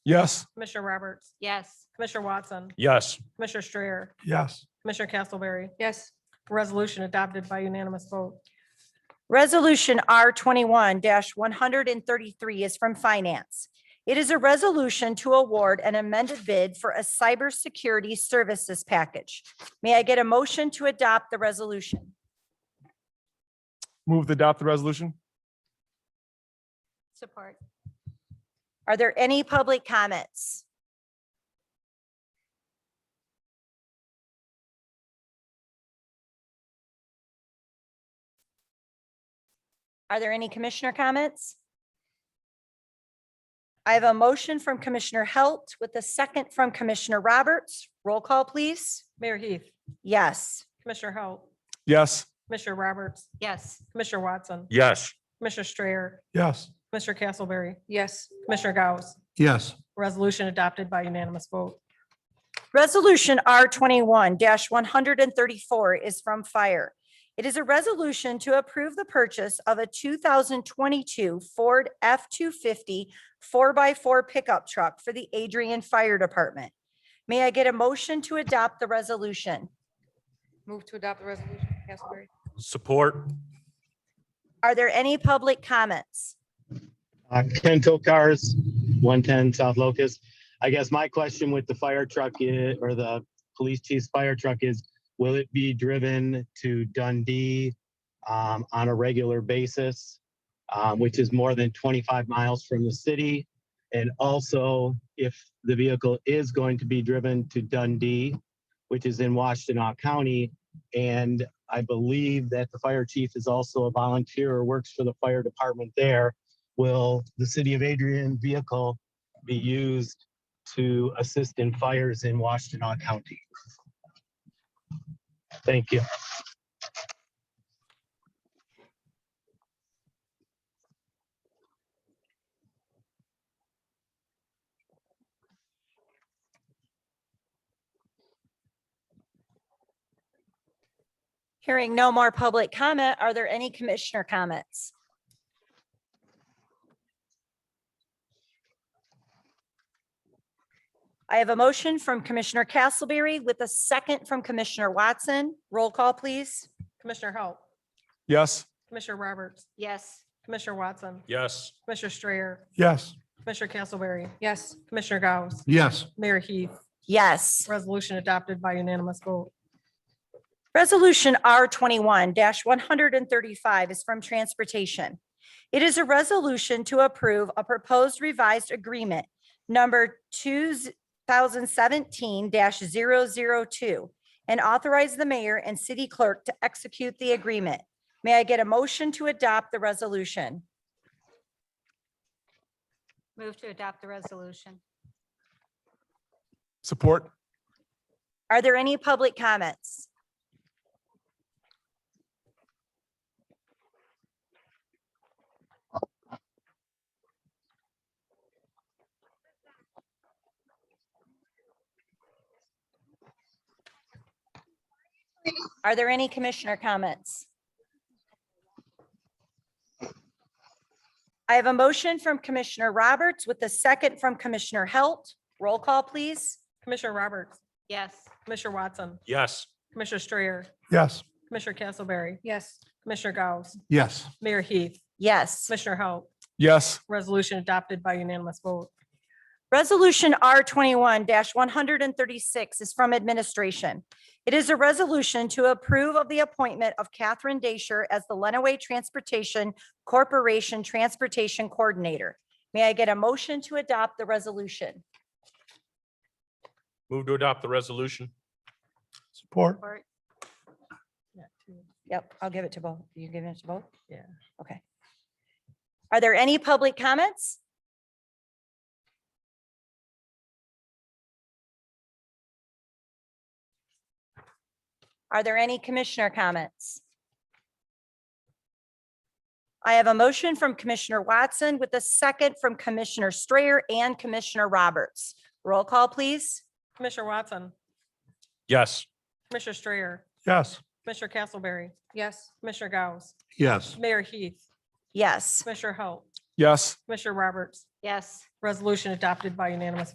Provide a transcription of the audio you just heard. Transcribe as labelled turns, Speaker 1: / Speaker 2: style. Speaker 1: Yes.
Speaker 2: Commissioner Roberts,
Speaker 3: Yes.
Speaker 2: Commissioner Watson,
Speaker 1: Yes.
Speaker 2: Commissioner Strayer,
Speaker 1: Yes.
Speaker 2: Commissioner Castleberry.
Speaker 3: Yes.
Speaker 2: Resolution adopted by unanimous vote.
Speaker 4: Resolution R twenty-one one hundred and thirty-three is from Finance. It is a resolution to award an amended bid for a cybersecurity services package. May I get a motion to adopt the resolution?
Speaker 1: Move to adopt the resolution?
Speaker 3: Support.
Speaker 4: Are there any public comments? Are there any commissioner comments? I have a motion from Commissioner Halt with a second from Commissioner Roberts. Roll call, please.
Speaker 2: Mayor Heath,
Speaker 4: Yes.
Speaker 2: Commissioner Halt,
Speaker 1: Yes.
Speaker 2: Commissioner Roberts,
Speaker 3: Yes.
Speaker 2: Commissioner Watson,
Speaker 1: Yes.
Speaker 2: Commissioner Strayer,
Speaker 1: Yes.
Speaker 2: Commissioner Castleberry,
Speaker 3: Yes.
Speaker 2: Commissioner Gauss.
Speaker 1: Yes.
Speaker 2: Resolution adopted by unanimous vote.
Speaker 4: Resolution R twenty-one one hundred and thirty-four is from Fire. It is a resolution to approve the purchase of a two thousand twenty-two Ford F 250 4 x four pickup truck for the Adrian Fire Department. May I get a motion to adopt the resolution?
Speaker 3: Move to adopt the resolution, Castleberry.
Speaker 1: Support?
Speaker 4: Are there any public comments?
Speaker 5: Uh, Ken Cars, 110 South Locust. I guess my question with the fire truck i- or the police chief's fire truck is, will it be driven to Dundee um, on a regular basis, um, which is more than 25 miles from the city? And also, if the vehicle is going to be driven to Dundee, which is in Washtenaw County, and I believe that the fire chief is also a volunteer or works for the fire department there, will the City of Adrian vehicle be used to assist in fires in Washtenaw County? Thank you.
Speaker 4: Hearing no more public comment, are there any commissioner comments? I have a motion from Commissioner Castleberry with a second from Commissioner Watson. Roll call, please.
Speaker 2: Commissioner Halt,
Speaker 1: Yes.
Speaker 2: Commissioner Roberts,
Speaker 3: Yes.
Speaker 2: Commissioner Watson,
Speaker 1: Yes.
Speaker 2: Commissioner Strayer,
Speaker 1: Yes.
Speaker 2: Commissioner Castleberry,
Speaker 3: Yes.
Speaker 2: Commissioner Gauss,
Speaker 1: Yes.
Speaker 2: Mayor Heath.
Speaker 4: Yes.
Speaker 2: Resolution adopted by unanimous vote.
Speaker 4: Resolution R twenty-one one hundred and thirty-five is from Transportation. It is a resolution to approve a proposed revised agreement number two thousand seventeen 2 and authorize the mayor and city clerk to execute the agreement. May I get a motion to adopt the resolution?
Speaker 3: Move to adopt the resolution.
Speaker 1: Support?
Speaker 4: Are there any public comments? Are there any commissioner comments? I have a motion from Commissioner Roberts with a second from Commissioner Halt. Roll call, please.
Speaker 2: Commissioner Roberts,
Speaker 3: Yes.
Speaker 2: Commissioner Watson,
Speaker 1: Yes.
Speaker 2: Commissioner Strayer,
Speaker 1: Yes.
Speaker 2: Commissioner Castleberry,
Speaker 3: Yes.
Speaker 2: Commissioner Gauss,
Speaker 1: Yes.
Speaker 2: Mayor Heath,
Speaker 4: Yes.
Speaker 2: Commissioner Halt.
Speaker 1: Yes.
Speaker 2: Resolution adopted by unanimous vote.
Speaker 4: Resolution R twenty-one one hundred and thirty-six is from administration. It is a resolution to approve of the appointment of Catherine Dasher as the Lenawee Transportation Corporation Transportation Coordinator. May I get a motion to adopt the resolution?
Speaker 6: Move to adopt the resolution.
Speaker 1: Support?
Speaker 3: Support.
Speaker 4: Yep, I'll give it to both. You giving it to both?
Speaker 2: Yeah.
Speaker 4: Okay. Are there any public comments? Are there any commissioner comments? I have a motion from Commissioner Watson with a second from Commissioner Strayer and Commissioner Roberts. Roll call, please.
Speaker 2: Commissioner Watson,
Speaker 6: Yes.
Speaker 2: Commissioner Strayer,
Speaker 1: Yes.
Speaker 2: Commissioner Castleberry,
Speaker 3: Yes.
Speaker 2: Commissioner Gauss,
Speaker 1: Yes.
Speaker 2: Mayor Heath,
Speaker 4: Yes.
Speaker 2: Commissioner Halt,
Speaker 1: Yes.
Speaker 2: Commissioner Roberts,
Speaker 3: Yes.
Speaker 2: Resolution adopted by unanimous